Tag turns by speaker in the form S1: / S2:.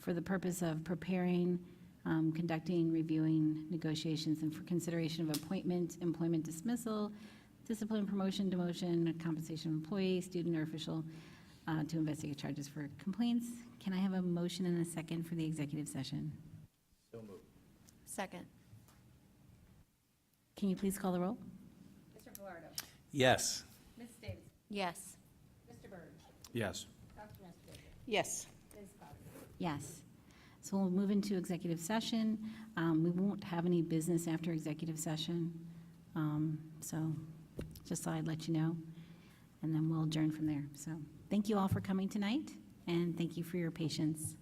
S1: for the purpose of preparing, um, conducting, reviewing negotiations, and for consideration of appointment, employment dismissal, discipline, promotion, demotion, compensation of employee, student, or official, uh, to investigate charges for complaints. Can I have a motion and a second for the executive session?
S2: Second.
S1: Can you please call the roll?
S3: Mr. Velardo.
S4: Yes.
S3: Ms. Davis.
S2: Yes.
S3: Mr. Byrd.
S4: Yes.
S3: Dr. Nestor.
S5: Yes.
S3: Ms. Powers.
S1: Yes. So we'll move into executive session. Um, We won't have any business after executive session. Um, So just thought I'd let you know. And then we'll adjourn from there. So thank you all for coming tonight, and thank you for your patience.